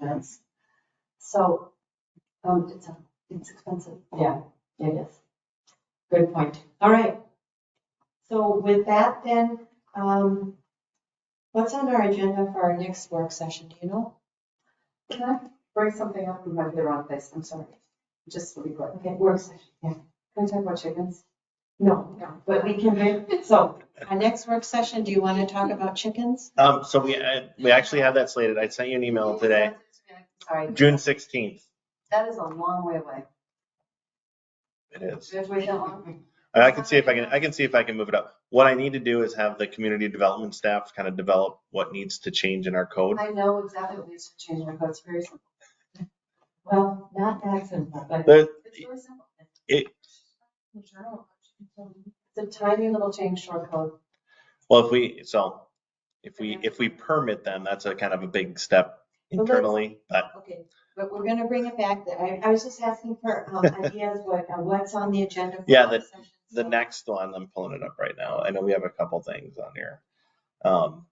fence. So, um, it's, a- it's expensive. Yeah, it is. Good point. All right. So with that then, um, what's on our agenda for our next work session? Do you know? Can I bring something up? We might be the wrong place. I'm sorry. Just really quick. Okay. Work session. Yeah. Can I talk about chickens? No. But we can, make- so our next work session, do you want to talk about chickens? Um, so we, uh, we actually have that slated. I sent you an email today, Sorry. June sixteenth. That is a long way away. It is. Did we wait that long? And I can see if I can, I can see if I can move it up. What I need to do is have the community development staff kind of develop what needs to change in our code. I know exactly what needs to change my code. It's very simple. Well, not that simple, but The, It's really simple. It- It's a tiny little change to our code. well, if we, so if we, if we permit them, that's a kind of a big step Well, let's- internally, but okay. But we're going to bring it back. I, I was just asking for um, ideas, what, uh, what's on the agenda. for Yeah, work session. the So- next one, I'm pulling it up right now. I know we have a couple things on here. Um,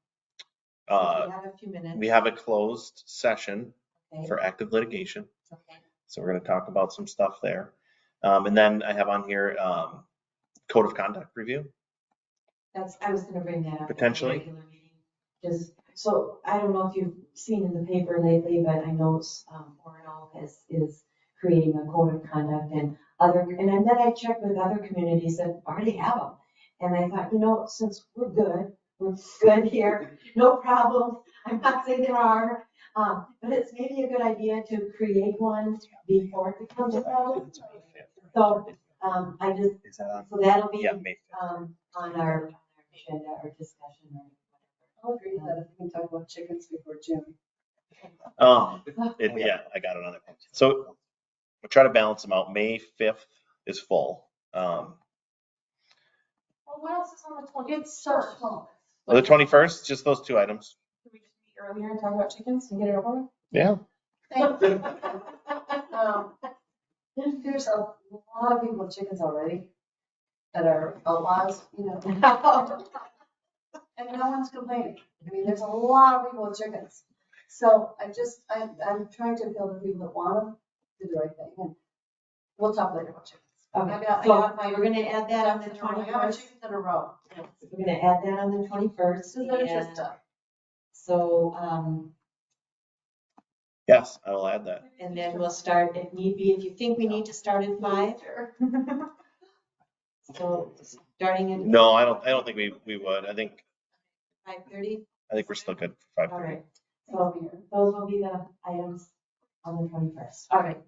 uh, We have a few minutes. we have a closed session Okay, for active litigation. okay. So we're gonna talk about some stuff there. Um, and then I have on here, um, code of conduct review. That's, I was gonna bring that up. at the Potentially. regular meeting. Just, so I don't know if you've seen in the paper lately, but I know, um, Orinoco is, is creating a code of conduct and other, and then I checked with other communities that already have them. And I thought, you know, since we're good, we're good here, no problem, I'm not saying there are, um, but it's maybe a good idea to create one before it becomes a problem. So, um, I just, Is that on? so that'll be Yeah, May um, on our on our agenda or discussion or whatever. I'll agree with that. We can talk about chickens before June. fifth. Um, it, yeah, I got it on it. So we'll try to balance them out. May fifth is full. Um, Well, what else is on the twenty? It's so small. the twenty-first, just those two items. Can we just meet earlier and talk about chickens and get it over? Yeah. Thank you. Um, There's a lot of people with chickens already that are outlaws, you know. And no one's complaining. I mean, there's a lot of people with chickens. So I just, I, I'm trying to appeal to people that want them to do the right thing. And We'll talk later about chickens. I Okay, got- I so got my- we're gonna add that on the I got my twenty-first. chickens in a row. We're gonna add that on the twenty-first. This is their just stuff. So, um, Yes, I will add that. and then we'll start if need be, if you think we need to start at five, so starting at No, I don't, I don't think we, we would. I think, five-thirty. I think we're still good for All five. right, so those will be the items on the twenty-first. All right.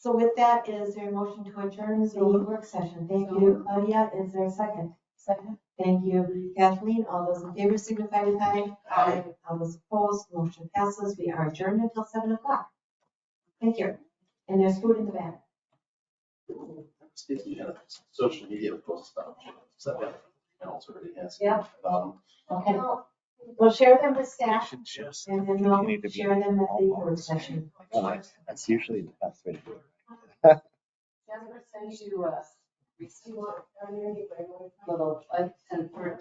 So with that, is there a motion to adjourn the So moved. work session? Thank So you, Claudia. Is there a second? Second. Thank you, Kathleen. All those in favor signify with aye. Aye. All those opposed, motion passes. We are adjourned until seven o'clock. Thank you. And there's food in the back. Speaking of social media posts about, so that else already has. Yeah. Um, Okay. We'll share them with staff should just. and then You need to we'll be share them at the work session. That's usually the best way to do it. uh, Jasper sends you a receipt or little, uh, and for